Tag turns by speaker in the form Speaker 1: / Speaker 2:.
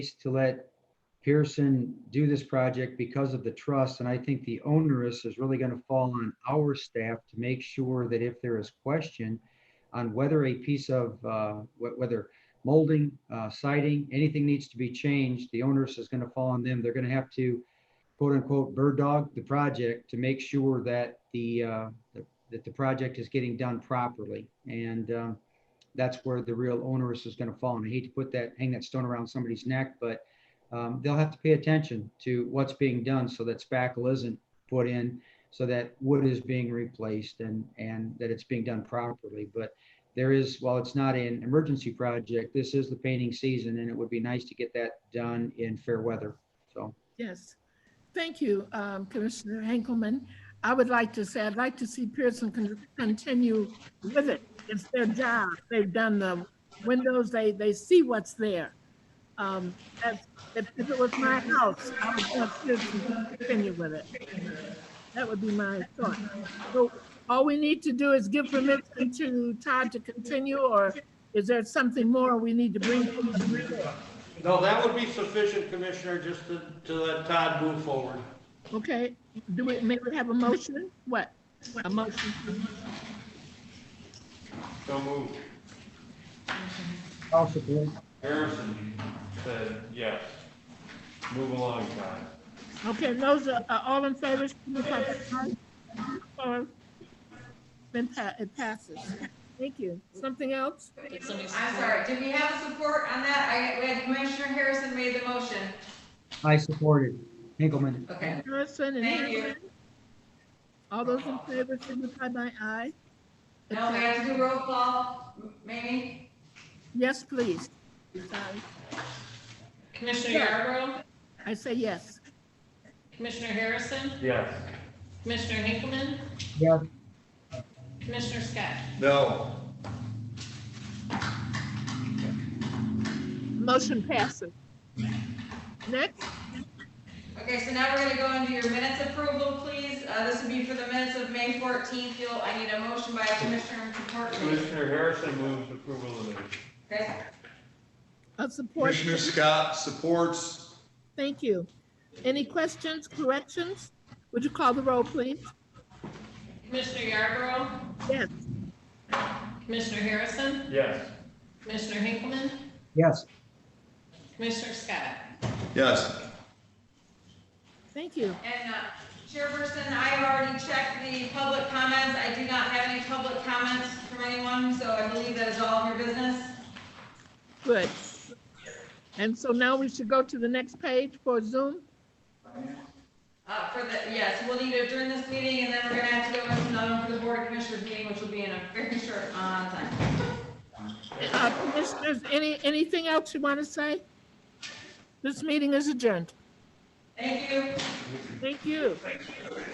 Speaker 1: to let Pearson do this project because of the trust. And I think the onerous is really going to fall on our staff to make sure that if there is question on whether a piece of, uh, wh- whether molding, uh, siding, anything needs to be changed, the onerous is going to fall on them. They're going to have to quote unquote bird dog the project to make sure that the, uh, the- that the project is getting done properly. And, um, that's where the real onerous is going to fall. And I hate to put that, hang that stone around somebody's neck, but um, they'll have to pay attention to what's being done so that spackle isn't put in, so that wood is being replaced and, and that it's being done properly. But there is, while it's not an emergency project, this is the painting season and it would be nice to get that done in fair weather. So,
Speaker 2: Yes. Thank you, um, Commissioner Henkelman. I would like to say, I'd like to see Pearson con- continue with it. It's their job. They've done the windows. They, they see what's there. Um, that's- If if it was my house, I would want Pearson to continue with it. That would be my thought. So all we need to do is give permission to Todd to continue, or is there something more we need to bring?
Speaker 3: No, that would be sufficient, Commissioner, just to, to let Todd move forward.
Speaker 2: Okay, do we, may we have a motion? What? A motion?
Speaker 3: So moved.
Speaker 1: I'll support.
Speaker 3: Harrison said yes. Move along, Todd.
Speaker 2: Okay, those are, are all in favor? signify by aye. Opposed? Then pa, it passes. Thank you. Something else?
Speaker 4: I'm sorry, did we have a support on that? I, we had Commissioner Harrison made the motion.
Speaker 1: I supported Hinkleman.
Speaker 4: Okay.
Speaker 2: Harrison and
Speaker 4: Thank you.
Speaker 2: Harrison? All those in favor signify by aye. It
Speaker 4: No, we
Speaker 2: passes.
Speaker 4: have to do roll call. Mamie?
Speaker 2: Yes, please. Sorry.
Speaker 5: Commissioner Yarborough,
Speaker 2: I say yes.
Speaker 5: Commissioner Harrison,
Speaker 3: Yes.
Speaker 5: Commissioner Hinkleman,
Speaker 1: Yeah,
Speaker 5: Commissioner Scott.
Speaker 3: No.
Speaker 2: Motion passes. Next,
Speaker 4: Okay, so now we're gonna go into your minutes approval, please. Uh, this would be for the minutes of May fourteenth. You'll, I need a motion by Commissioner McCourtney.
Speaker 3: Commissioner Harrison moves approval of the minutes.
Speaker 4: Okay,
Speaker 2: a support.
Speaker 6: Commissioner Scott supports.
Speaker 2: Thank you. Any questions, corrections? Would you call the roll, please?
Speaker 5: Commissioner Yarborough,
Speaker 2: Yes.
Speaker 5: Commissioner Harrison,
Speaker 3: Yes.
Speaker 5: Commissioner Hinkleman,
Speaker 1: yes,
Speaker 5: Commissioner Scott.
Speaker 6: Yes.
Speaker 2: Thank you.
Speaker 4: and, uh, Chairperson, I have already checked the public comments. I do not have any public comments from anyone, so I believe that is all of your business.
Speaker 2: Good. And so now we should go to the next page for Zoom.
Speaker 4: Uh, for the, yes, we'll need to adjourn this meeting and then we're gonna have to go into another one for the board of commissioners meeting, which will be in a very short, uh, time.
Speaker 2: Uh, Commissioners, any, anything else you want to say? This meeting is adjourned.
Speaker 4: Thank you.
Speaker 2: Thank you.